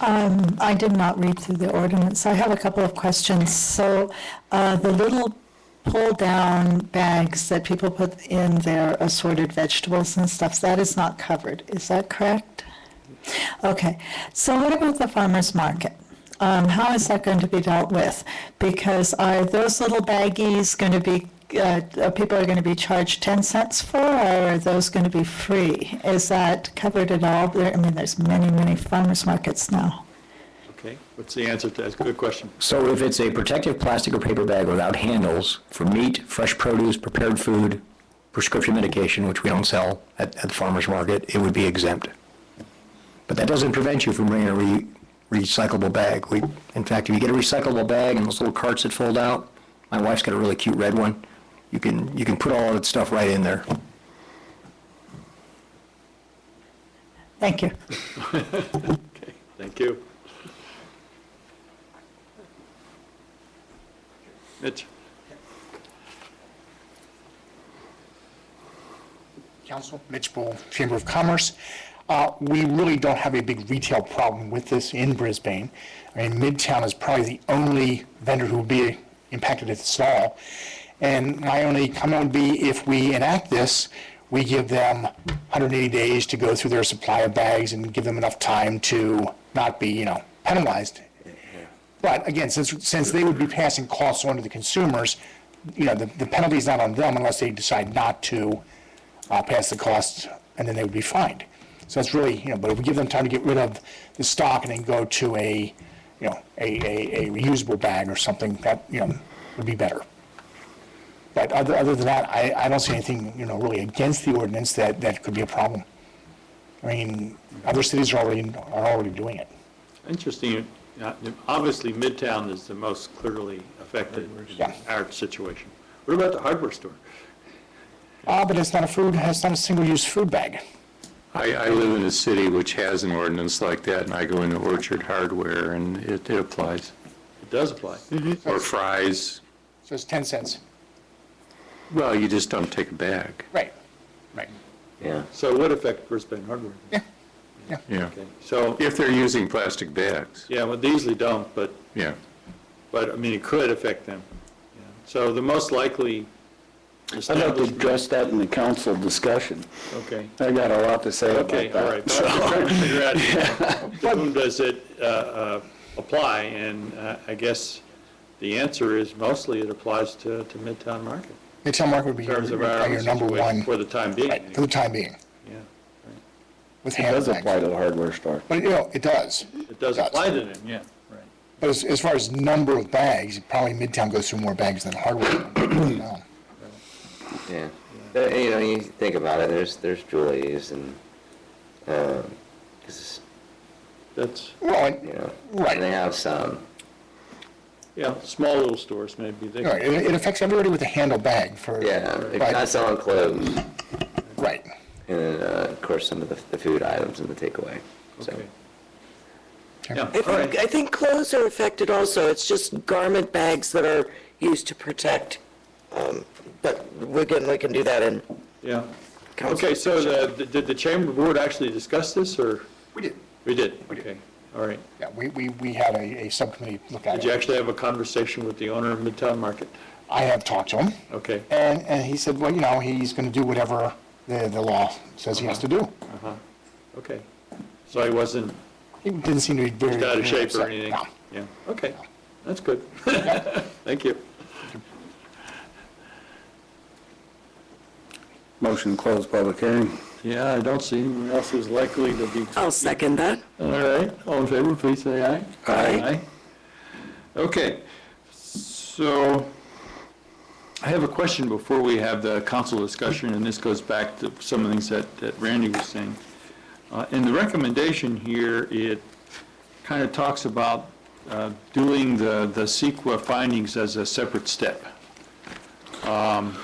Um, I did not read through the ordinance. I have a couple of questions. So uh, the little pull-down bags that people put in their assorted vegetables and stuff, that is not covered. Is that correct? Okay. So what about the farmer's market? Um, How is that going to be dealt with? Because are those little baggies going to be, uh, are people are going to be charged 10 cents for, or are those going to be free? Is that covered at all? There, I mean, there's many, many farmers markets now. Okay, what's the answer to that? Good question. So if it's a protective plastic or paper bag without handles for meat, fresh produce, prepared food, prescription medication, which we don't sell at, at the farmer's market, it would be exempt. But that doesn't prevent you from bringing a re, recyclable bag. We, in fact, if you get a recyclable bag and those little carts that fold out, my wife's got a really cute red one, you can, you can put all of that stuff right in there. Thank you. Okay, thank you. Mitch? Council, Mitch Bull, Chamber of Commerce. Uh, We really don't have a big retail problem with this in Brisbane. I mean, Midtown is probably the only vendor who will be impacted at this all. And my only comment would be if we enact this, we give them 180 days to go through their supply of bags and give them enough time to not be, you know, penalized but again, since, since they would be passing costs on to the consumers, you know, the, the penalty's not on them unless they decide not to, uh, pass the costs, and then they would be fined. So that's really, you know, but if we give them time to get rid of the stock and then go to a, you know, a, a, a reusable bag or something, that, you know, would be better. But other, other than that, I, I don't see anything, you know, really against the ordinance that, that could be a problem. I mean, other cities are already, are already doing it. Interesting, uh, obviously Midtown is the most clearly affected in Yeah. our situation. What about the hardware store? Ah, but it's not a food, it's not a single-use food bag. I, I live in a city which has an ordinance like that, and I go into Orchard Hardware, and it, it applies. It does apply. Mm-hmm. Or fries, So it's 10 cents. well, you just don't take a bag, Right, right. So what affect Brisbane hardware? yeah. Okay, So, If they're using plastic bags, yeah, well, they usually don't, but, yeah. but, I mean, it could affect them. Yeah. So the most likely I'd like to establishment, address that in the council discussion. okay. I got a lot to say about Okay, all right. that. But I'm trying to figure out, to whom does it uh, uh, apply? And uh, I guess the answer is mostly it applies to, to Midtown Market, Midtown Market would be in your terms of our your number situation one, for the time being. right, for the time being, Yeah, with It hand does apply bags. to the hardware store. But, you know, it does. It does Does. apply to them, yeah, right. But as, as far as number of bags, probably Midtown goes through more bags than Hardwick. No. Yeah. Uh, You know, you think about it, there's, there's Julie's and, um, 'cause, That's, Well, you and- know, Right. and they have some. yeah, small little stores maybe. they- right, it it affects everybody with a handle bag for, Yeah, they're not right, selling clothes, and right. then, uh, of course, some of the, the food items and the takeaway, so. Okay. Okay. Yeah, I all right. think, I think clothes are affected also. It's just garment bags that are used to protect. Um, But we can, we can do that in Yeah. council. Okay, so the- the- did the chamber board actually discuss this, or? We did. We did, okay, all right. Yeah, we, we, we had a, a subcommittee look at Did you it. actually have a conversation with the owner of Midtown Market? I have talked to him, Okay. and, and he said, well, you know, he's going to do whatever the, the law says he has to do. Okay, so he wasn't He didn't seem to be very. out of shape or upset. anything? No. Yeah, okay, that's good. Thank you. Motion to close public hearing. Yeah, I don't see anyone else who's likely to be. I'll second that. All right, all in favor, please say aye. Aye. Okay, so I have a question before we have the council discussion, and this goes back to some of the things that that Randy was saying. Uh, In the recommendation here, it kind of talks about uh, doing the the CEQA findings as a separate step. Um,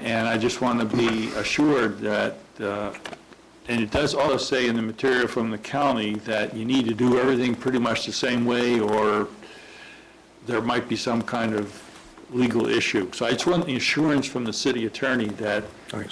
And I just want to be assured that, uh, and it does also say in the material from the county that you need to do everything pretty much the same way, or there might be some kind of legal issue. So I just want the assurance from the city attorney that